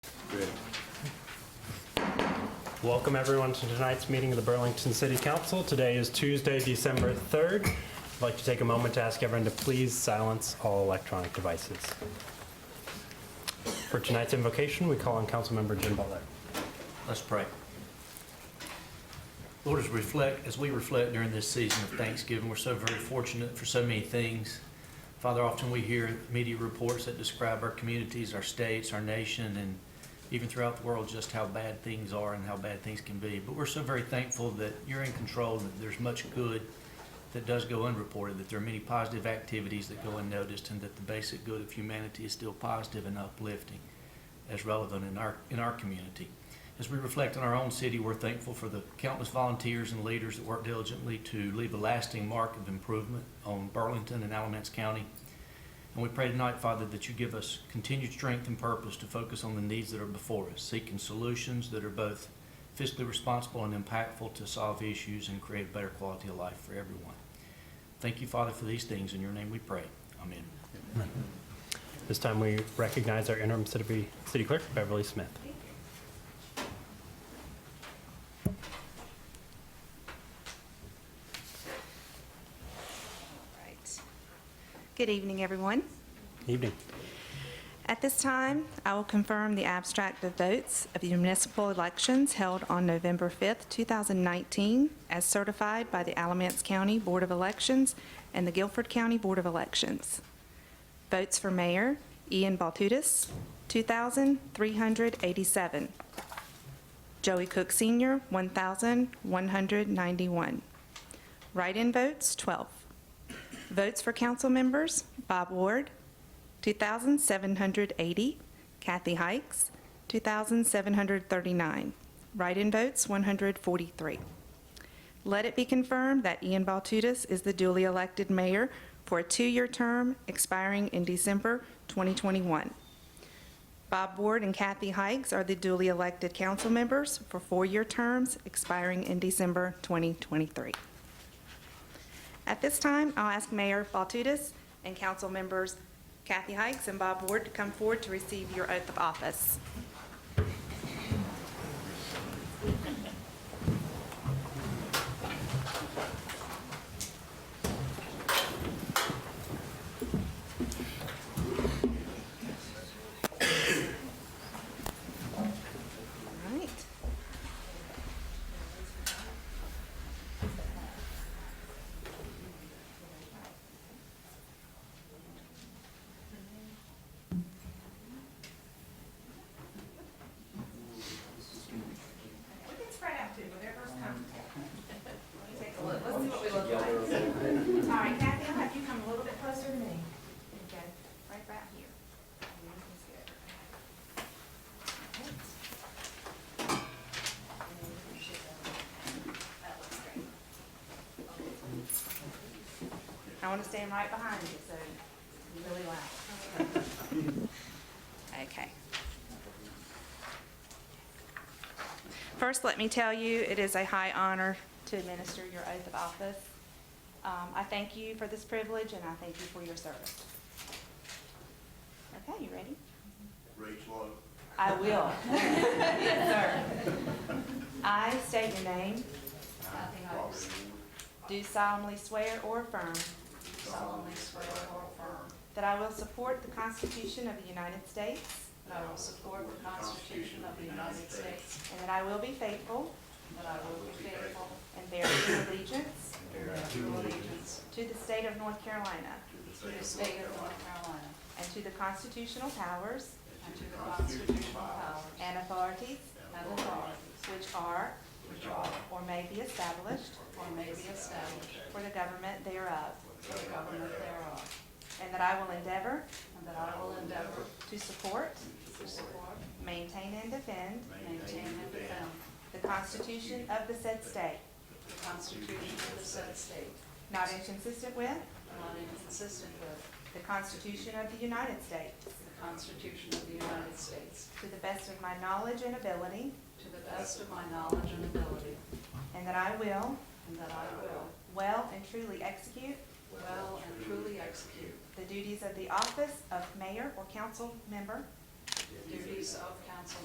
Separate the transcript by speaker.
Speaker 1: Welcome everyone to tonight's meeting of the Burlington City Council. Today is Tuesday, December 3rd. I'd like to take a moment to ask everyone to please silence all electronic devices. For tonight's invocation, we call on Councilmember Jim Butler.
Speaker 2: Let's pray. Lord, as we reflect, as we reflect during this season of Thanksgiving, we're so very fortunate for so many things. Father, often we hear media reports that describe our communities, our states, our nation, and even throughout the world, just how bad things are and how bad things can be. But we're so very thankful that you're in control, and that there's much good that does go unreported, that there are many positive activities that go unnoticed, and that the basic good of humanity is still positive and uplifting as relevant in our, in our community. As we reflect on our own city, we're thankful for the countless volunteers and leaders that work diligently to leave a lasting mark of improvement on Burlington and Alamance County. And we pray tonight, Father, that you give us continued strength and purpose to focus on the needs that are before us, seeking solutions that are both fiscally responsible and impactful to solve issues and create a better quality of life for everyone. Thank you, Father, for these things. In your name we pray. Amen.
Speaker 1: This time we recognize our interim city city clerk, Beverly Smith.
Speaker 3: Right. Good evening, everyone.
Speaker 1: Evening.
Speaker 3: At this time, I will confirm the abstract of votes of the municipal elections held on November 5th, 2019, as certified by the Alamance County Board of Elections and the Guilford County Board of Elections. Votes for Mayor Ian Baltutis, 2,387. Joey Cook Sr., 1,191. Write-in votes, 12. Votes for council members, Bob Ward, 2,780. Kathy Hikes, 2,739. Write-in votes, 143. Let it be confirmed that Ian Baltutis is the duly elected mayor for a two-year term expiring in December 2021. Bob Ward and Kathy Hikes are the duly elected council members for four-year terms expiring in December 2023. At this time, I'll ask Mayor Baltutis and council members Kathy Hikes and Bob Ward to come forward to receive your oath of office. All right. We can spread out too, whatever's comfortable. Let me take a look, let's see what we look like. All right, Kathy, I'll have you come a little bit closer to me. Okay, right about here. And you can see everything. All right. And then you can shift over. That looks great. I want to stand right behind you, so it's really loud. Okay. First, let me tell you, it is a high honor to administer your oath of office. Um, I thank you for this privilege, and I thank you for your service. Okay, you ready?
Speaker 4: Rachel,
Speaker 3: I will. Yes, sir. I state your name,
Speaker 4: Robert,
Speaker 3: do solemnly swear or affirm
Speaker 5: solemnly swear or affirm
Speaker 3: that I will support the Constitution of the United States
Speaker 5: that I will support the Constitution of the United States,
Speaker 3: and that I will be faithful
Speaker 5: and that I will be faithful
Speaker 3: and bear true allegiance
Speaker 5: and bear true allegiance
Speaker 3: to the state of North Carolina
Speaker 5: to the state of North Carolina
Speaker 3: and to the constitutional powers
Speaker 5: and to the constitutional powers
Speaker 3: and authorities
Speaker 5: and authorities
Speaker 3: which are
Speaker 5: which are
Speaker 3: or may be established
Speaker 5: or may be established
Speaker 3: for the government thereof,
Speaker 5: for the government thereof,
Speaker 3: and that I will endeavor
Speaker 5: and that I will endeavor
Speaker 3: to support,
Speaker 5: to support,
Speaker 3: maintain, and defend
Speaker 5: maintain, and defend
Speaker 3: the Constitution of the said state,
Speaker 5: the Constitution of the said state,
Speaker 3: not inconsistent with
Speaker 5: not inconsistent with
Speaker 3: the Constitution of the United States,
Speaker 5: the Constitution of the United States,
Speaker 3: to the best of my knowledge and ability,
Speaker 5: to the best of my knowledge and ability,
Speaker 3: and that I will
Speaker 5: and that I will
Speaker 3: well and truly execute
Speaker 5: well and truly execute
Speaker 3: the duties of the office of mayor or council member
Speaker 5: the duties of council